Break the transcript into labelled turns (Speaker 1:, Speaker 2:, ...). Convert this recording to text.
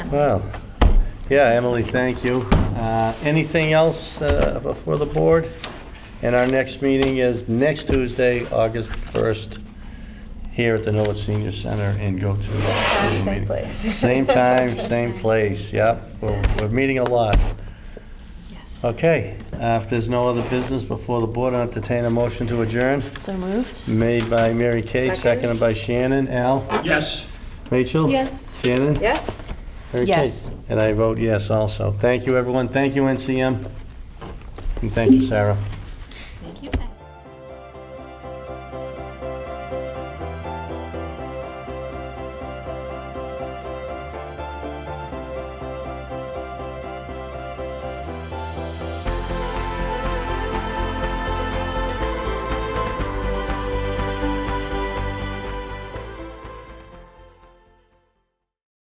Speaker 1: Well, yeah, Emily, thank you. Uh, Anything else uh, for the board? And our next meeting is next Tuesday, August 1st, here at the Norwood Senior Center in go to.
Speaker 2: Same time, same place.
Speaker 1: Same time, same place, yep. We're we're meeting a lot.
Speaker 2: Yes.
Speaker 1: Okay, uh, if there's no other business before the board, I'll entertain a motion to adjourn.
Speaker 2: So moved?
Speaker 1: Made by Mary Kate,
Speaker 3: Second.
Speaker 1: seconded by Shannon. Al?
Speaker 4: Yes.
Speaker 1: Rachel?
Speaker 3: Yes.
Speaker 1: Shannon?
Speaker 3: Yes.
Speaker 1: Mary Kate?
Speaker 2: Yes.
Speaker 1: And I vote yes also. Thank you, everyone. Thank you, NCM. And thank you, Sarah.